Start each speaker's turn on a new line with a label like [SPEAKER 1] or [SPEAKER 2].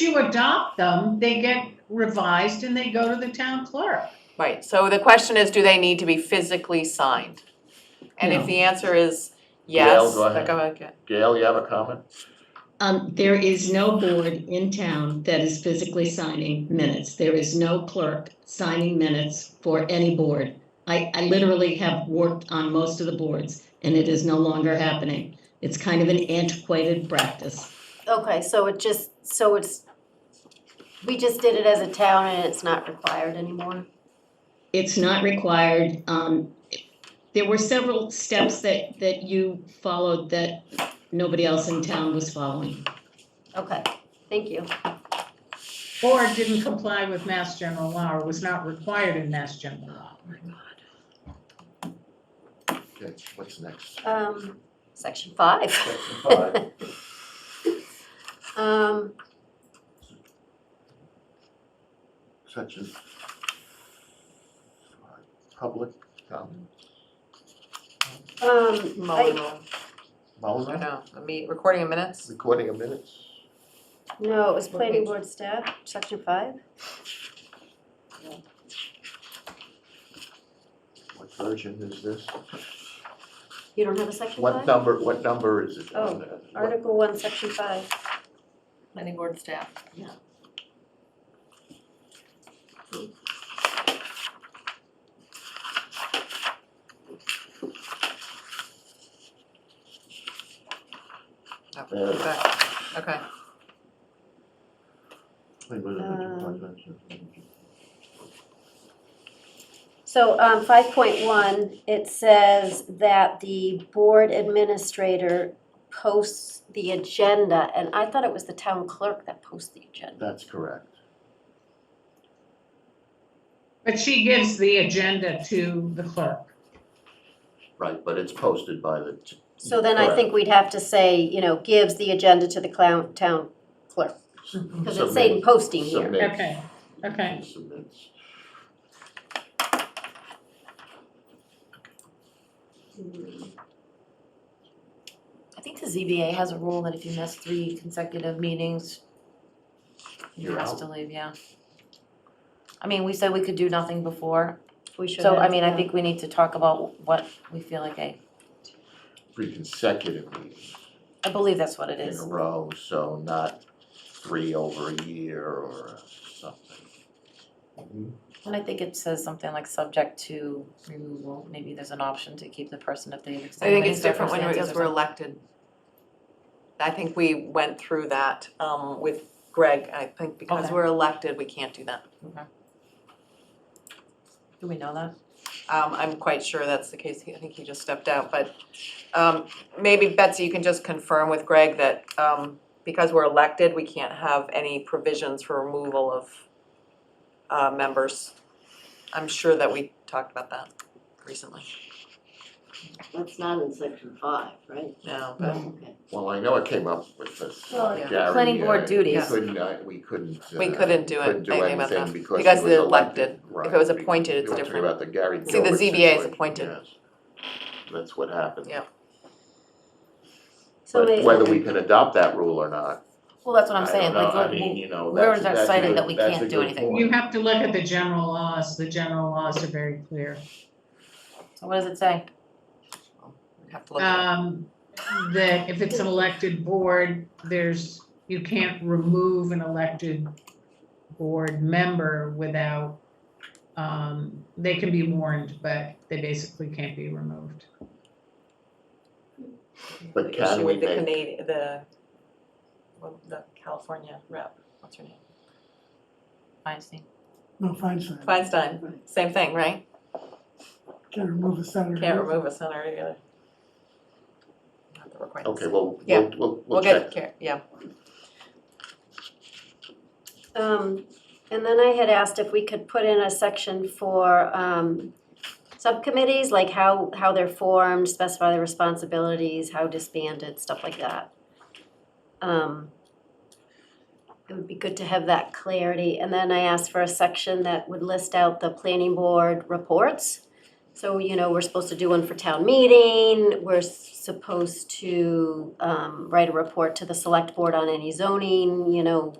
[SPEAKER 1] you adopt them, they get revised and they go to the town clerk.
[SPEAKER 2] Right, so the question is, do they need to be physically signed? And if
[SPEAKER 1] No.
[SPEAKER 2] the answer is
[SPEAKER 3] Gail,
[SPEAKER 2] yes,
[SPEAKER 3] go
[SPEAKER 2] then
[SPEAKER 3] ahead.
[SPEAKER 2] go ahead.
[SPEAKER 3] Gail, you have a comment?
[SPEAKER 4] Um, there is no board in town that is physically signing minutes. There is no clerk signing minutes for any board. I, I literally have worked on most of the boards and it is no longer happening. It's kind of an antiquated practice.
[SPEAKER 5] Okay, so it just, so it's, we just did it as a town and it's not required anymore?
[SPEAKER 4] It's not required. Um, there were several steps that, that you followed that nobody else in town was following.
[SPEAKER 5] Okay, thank you.
[SPEAKER 1] Or it didn't comply with Mass General Law or was not required in Mass General Law.
[SPEAKER 3] Okay, what's next?
[SPEAKER 5] Um, section five.
[SPEAKER 3] Section five.
[SPEAKER 5] Um,
[SPEAKER 3] Section five, public comment.
[SPEAKER 5] um,
[SPEAKER 2] Mueller
[SPEAKER 5] I,
[SPEAKER 2] rule, I
[SPEAKER 3] Mulligan,
[SPEAKER 2] know, I mean, recording of minutes?
[SPEAKER 3] recording of minutes.
[SPEAKER 5] no, it was planning board staff, section five.
[SPEAKER 3] What version is this?
[SPEAKER 5] You don't have a section
[SPEAKER 3] What
[SPEAKER 5] five?
[SPEAKER 3] number, what number is it on there? What-
[SPEAKER 5] Article one, section five.
[SPEAKER 2] Planning board staff.
[SPEAKER 3] uh,
[SPEAKER 2] Okay, okay,
[SPEAKER 3] wait, wait, wait, wait, wait, wait, wait.
[SPEAKER 5] So, um, five point one, it says that the board administrator posts the agenda, and I thought it was the town clerk that posts the agenda.
[SPEAKER 3] That's correct.
[SPEAKER 1] But she gives the agenda to the clerk.
[SPEAKER 3] Right, but it's posted by the, t-
[SPEAKER 5] So then I think we'd have to say, you know, gives the agenda to the clown, town clerk, because it's saying
[SPEAKER 3] Submit.
[SPEAKER 5] posting here.
[SPEAKER 3] Submit.
[SPEAKER 1] Hmm. Okay, okay.
[SPEAKER 3] Submits.
[SPEAKER 6] I think the ZBA has a rule that if you miss three consecutive meetings, you
[SPEAKER 3] You're
[SPEAKER 6] have
[SPEAKER 3] out.
[SPEAKER 6] to leave, yeah. I mean, we said we could do nothing before,
[SPEAKER 5] We should
[SPEAKER 6] so I
[SPEAKER 5] have,
[SPEAKER 6] mean, I
[SPEAKER 5] yeah.
[SPEAKER 6] think we need to talk about what we feel like, I,
[SPEAKER 3] Three consecutive meetings
[SPEAKER 6] I believe that's what it
[SPEAKER 3] in
[SPEAKER 6] is.
[SPEAKER 3] a row, so not three over a year or something. Mhm.
[SPEAKER 6] And I think it says something like subject to removal, maybe there's an option to keep the person if they've
[SPEAKER 2] I
[SPEAKER 6] extenuating
[SPEAKER 2] think it's different when,
[SPEAKER 6] circumstances
[SPEAKER 2] because
[SPEAKER 6] or
[SPEAKER 2] we're
[SPEAKER 6] something.
[SPEAKER 2] elected. I think we went through that, um, with Greg, I think because
[SPEAKER 6] Okay.
[SPEAKER 2] we're elected, we can't do that.
[SPEAKER 6] Do we know that?
[SPEAKER 2] Um, I'm quite sure that's the case, He- I think he just stepped out, but, um, maybe Betsy, you can just confirm with Greg that, um, because we're elected, we can't have any provisions for removal of, uh, members. I'm sure that we talked about that recently,
[SPEAKER 7] That's not in section five, right?
[SPEAKER 2] no, but,
[SPEAKER 7] Okay.
[SPEAKER 3] Well, I know it came up with this
[SPEAKER 5] Well,
[SPEAKER 3] uh,
[SPEAKER 2] yeah.
[SPEAKER 3] Gary,
[SPEAKER 6] Planning board
[SPEAKER 3] uh,
[SPEAKER 6] duties.
[SPEAKER 3] We couldn't, uh, we couldn't. uh,
[SPEAKER 2] We couldn't do it,
[SPEAKER 3] couldn't
[SPEAKER 2] anything about that,
[SPEAKER 3] anything because
[SPEAKER 2] because
[SPEAKER 3] it was
[SPEAKER 2] they're
[SPEAKER 3] elected. Right.
[SPEAKER 2] it was appointed, it's
[SPEAKER 3] You're talking
[SPEAKER 2] different.
[SPEAKER 3] about the Gary
[SPEAKER 2] See, the ZBA
[SPEAKER 3] Gilbert
[SPEAKER 2] is
[SPEAKER 3] situation,
[SPEAKER 2] appointed.
[SPEAKER 3] yes. That's what happened.
[SPEAKER 2] Yeah.
[SPEAKER 5] So
[SPEAKER 3] But
[SPEAKER 5] may-
[SPEAKER 3] whether we can adopt that rule or not,
[SPEAKER 6] Well, that's what
[SPEAKER 3] I
[SPEAKER 6] I'm
[SPEAKER 3] don't
[SPEAKER 6] saying,
[SPEAKER 3] know,
[SPEAKER 6] like,
[SPEAKER 3] I
[SPEAKER 6] what-
[SPEAKER 3] mean, you know,
[SPEAKER 6] where
[SPEAKER 3] that's,
[SPEAKER 6] is our
[SPEAKER 3] that's a
[SPEAKER 6] citing
[SPEAKER 3] good-
[SPEAKER 6] that we
[SPEAKER 3] that's
[SPEAKER 6] can't
[SPEAKER 3] a
[SPEAKER 6] do
[SPEAKER 3] good
[SPEAKER 6] anything?
[SPEAKER 3] point.
[SPEAKER 1] You have to look at the general laws. The general laws are very clear.
[SPEAKER 6] so what does it say?
[SPEAKER 2] we have to look at it.
[SPEAKER 1] Um, that if it's an elected board, there's, you can't remove an elected board member without, um, they can be warned, but they basically can't be removed.
[SPEAKER 7] Um,
[SPEAKER 3] But can we
[SPEAKER 2] The issue with
[SPEAKER 3] make-
[SPEAKER 2] the Canadian, the, well, the California rep, what's her name?
[SPEAKER 6] Feinstein.
[SPEAKER 8] No, Feinstein.
[SPEAKER 2] Feinstein, same thing, right?
[SPEAKER 8] Can't remove a senator.
[SPEAKER 2] Can't remove a senator either. Not that we're quite the
[SPEAKER 3] Okay,
[SPEAKER 2] same.
[SPEAKER 3] well,
[SPEAKER 2] Yeah.
[SPEAKER 3] we'll, we'll,
[SPEAKER 2] We'll
[SPEAKER 3] we'll
[SPEAKER 2] get,
[SPEAKER 3] check.
[SPEAKER 2] care- yeah,
[SPEAKER 5] Um, and then I had asked if we could put in a section for, um, subcommittees, like how, how they're formed, specify the responsibilities, how disbanded, stuff like that. Um, it would be good to have that clarity, and then I asked for a section that would list out the planning board reports. So, you know, we're supposed to do one for town meeting, we're supposed to, um, write a report to the select board on any zoning, you know,